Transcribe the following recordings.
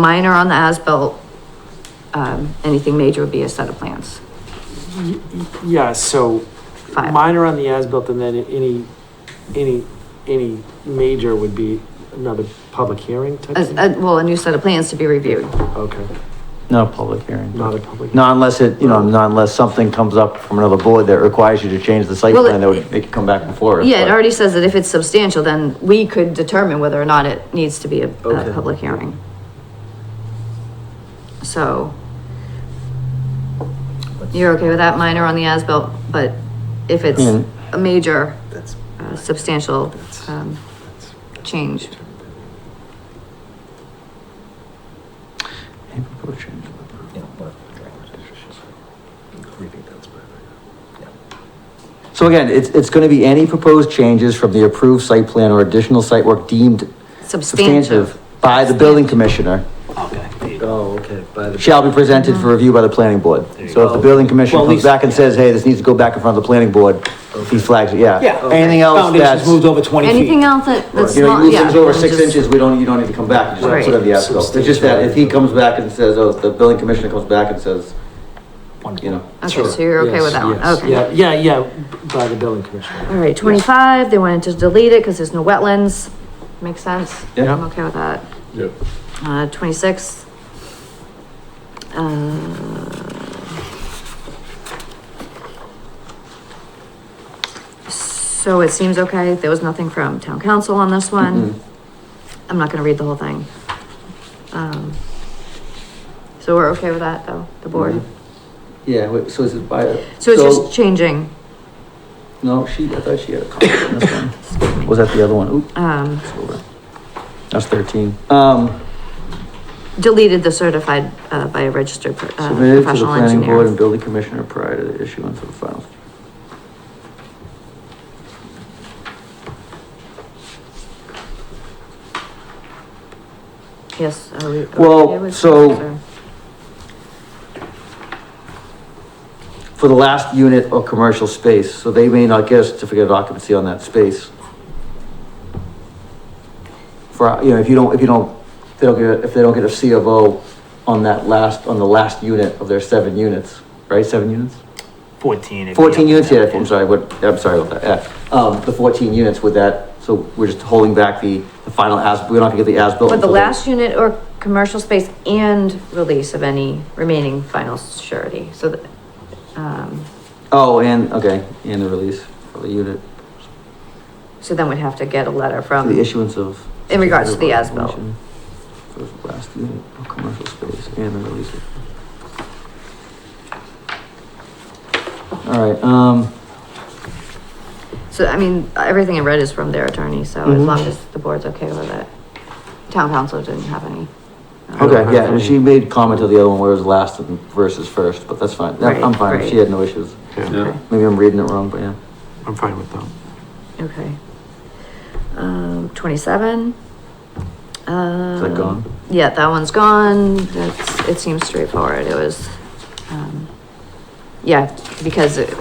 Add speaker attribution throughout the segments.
Speaker 1: Minor on the as-built. Um, anything major would be a set of plans.
Speaker 2: Yeah, so
Speaker 1: Five.
Speaker 2: minor on the as-built and then any, any, any major would be another public hearing type
Speaker 1: A-
Speaker 2: thing?
Speaker 1: a- uh, well, a new set of plans to be reviewed.
Speaker 2: Okay,
Speaker 3: Not a public hearing.
Speaker 2: not a public.
Speaker 3: Not unless it, you know, not unless something comes up from another board that requires you to change the site
Speaker 1: Well,
Speaker 3: plan, that
Speaker 1: it-
Speaker 3: would, they could come back before us.
Speaker 1: Yeah, it
Speaker 3: but-
Speaker 1: already says that if it's substantial, then we could determine whether or not it needs to be a, a
Speaker 2: Okay.
Speaker 1: public hearing. So. You're okay with that minor on the as-built, but if it's
Speaker 3: Mm.
Speaker 1: a major,
Speaker 2: That's.
Speaker 1: uh, substantial, um,
Speaker 2: that's-
Speaker 1: change.
Speaker 3: Maybe we'll change it. So again, it's, it's gonna be any proposed changes from the approved site plan or additional site work deemed
Speaker 1: Substantive.
Speaker 3: substantive by the building commissioner
Speaker 2: Oh, okay, by the.
Speaker 3: shall be presented for review by the planning board. So if the building commissioner
Speaker 4: Well, at
Speaker 3: comes
Speaker 4: least-
Speaker 3: back and says, hey, this needs to go back in front of the planning board, he flags it, yeah.
Speaker 4: Yeah.
Speaker 3: Anything else that's,
Speaker 4: Foundations moved
Speaker 3: you
Speaker 4: over twenty feet.
Speaker 1: Anything else that, that's
Speaker 3: know,
Speaker 1: not,
Speaker 3: you move
Speaker 1: yeah.
Speaker 3: things over
Speaker 1: then
Speaker 3: six
Speaker 1: just-
Speaker 3: inches, we don't, you don't need to come back, you just have to put it in the
Speaker 2: Right.
Speaker 3: as-built. It's just that if he comes back and says, oh, the building commissioner comes back and says, you know,
Speaker 1: Okay, so you're okay with that one, okay.
Speaker 2: Yeah, yeah, yeah, by the building commissioner.
Speaker 1: All right, twenty-five, they wanted to delete it because there's no wetlands. Makes sense?
Speaker 3: Yeah.
Speaker 1: I'm okay with that.
Speaker 5: Yep.
Speaker 1: Uh, twenty-six. Uh, So it seems okay. There was nothing from town council on this
Speaker 3: Mm-hmm.
Speaker 1: one. I'm not gonna read the whole thing. Um, So we're okay with that though, the board?
Speaker 3: Mm-hmm. yeah, wait, so is it by?
Speaker 1: So it's just changing,
Speaker 3: No, she, I thought she had a comment on this one. Was that the other one? Oop,
Speaker 1: um,
Speaker 3: it's over. That's thirteen. Um,
Speaker 1: deleted the certified, uh, by a registered, pro- uh,
Speaker 3: submitted to the
Speaker 1: professional
Speaker 3: planning board and
Speaker 1: engineer.
Speaker 3: building commissioner prior to the issuance of the final.
Speaker 1: Yes. are we- are we
Speaker 3: Well,
Speaker 1: okay with
Speaker 3: so-
Speaker 1: that, or-
Speaker 3: For the last unit of commercial space, so they may not get a certificate of occupancy on that space. For, you know, if you don't, if you don't, they don't get, a- if they don't get a C of O on that last, on the last unit of their seven units, right, seven units?
Speaker 4: Fourteen. if you
Speaker 3: Fourteen
Speaker 4: have
Speaker 3: units,
Speaker 4: to
Speaker 3: yeah,
Speaker 4: have
Speaker 3: I'm
Speaker 4: it.
Speaker 3: sorry, what, I'm sorry about that, yeah, um, the fourteen units with that, so we're just holding back the, the final as, we're not gonna get the as-built.
Speaker 1: But the
Speaker 3: until
Speaker 1: last unit or commercial space and release of any remaining final surety, so that, um,
Speaker 3: Oh, and, okay, and the release of the unit,
Speaker 1: so then we'd have to get a letter
Speaker 3: the
Speaker 1: from,
Speaker 3: issuance of.
Speaker 1: in regards to the as-built.
Speaker 3: For the last unit of commercial space and the release of. Alright, um,
Speaker 1: So, I mean, everything I read is from their attorney, so as
Speaker 3: Mhm.
Speaker 1: long as the board's okay with it. Town council didn't have any. um,
Speaker 3: okay, yeah, and she made comment to the other one where it was last and versus first, but that's fine, I'm I'm
Speaker 1: Right,
Speaker 3: fine,
Speaker 1: right.
Speaker 3: she had no issues,
Speaker 5: Yeah,
Speaker 3: maybe I'm reading it wrong, but yeah.
Speaker 5: I'm fine with that.
Speaker 1: Okay. Um, twenty-seven. Is
Speaker 3: that gone?
Speaker 1: Yeah, that one's gone. That's, it seems straightforward. It was, um, yeah, because it,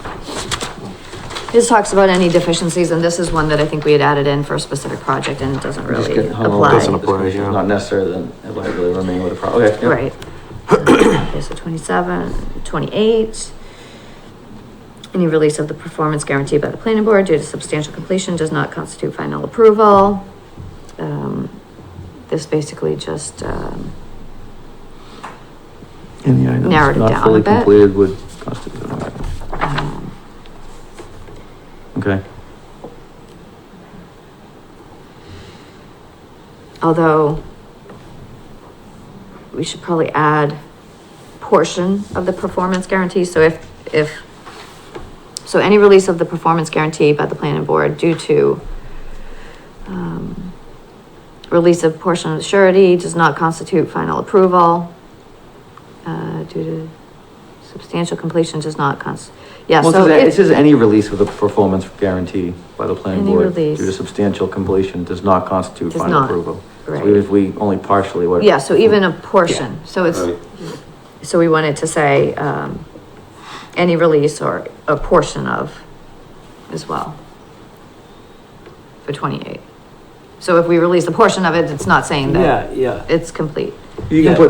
Speaker 1: this talks about any deficiencies and this is one that I think we had added in for a specific project and it doesn't
Speaker 3: Just
Speaker 1: really
Speaker 3: getting hung over
Speaker 1: apply.
Speaker 3: this
Speaker 5: Doesn't apply,
Speaker 3: issue.
Speaker 5: yeah.
Speaker 3: Not necessary, then it likely remain with the problem. Okay, yeah.
Speaker 1: Right. Okay, so 27, 28. Any release of the performance guarantee by the planning board due to substantial completion does not constitute final approval. Um, This basically just, um,
Speaker 3: In the items
Speaker 1: Narrowed it
Speaker 3: not
Speaker 1: down a
Speaker 3: fully
Speaker 1: bit.
Speaker 3: completed would constitute an item.
Speaker 1: um,
Speaker 3: Okay,
Speaker 1: although we should probably add portion of the performance guarantee, so if, if, so any release of the performance guarantee by the planning board due to um, release of portion of surety does not constitute final approval uh, due to substantial completion does not const, yeah,
Speaker 3: well, it
Speaker 1: so
Speaker 3: says, it
Speaker 1: it's
Speaker 3: says any release with a performance guarantee by the planning
Speaker 1: Any
Speaker 3: board due
Speaker 1: release.
Speaker 3: to substantial completion does not constitute
Speaker 1: Does
Speaker 3: final
Speaker 1: not,
Speaker 3: approval. So
Speaker 1: right.
Speaker 3: even if we only partially what.
Speaker 1: Yeah, so even a portion, so it's, so we wanted to say, um, any release or a portion of as well. For twenty-eight. So if we release a portion of it, it's not saying that
Speaker 2: Yeah, yeah.
Speaker 1: it's complete.
Speaker 3: You can
Speaker 2: Yeah.
Speaker 3: put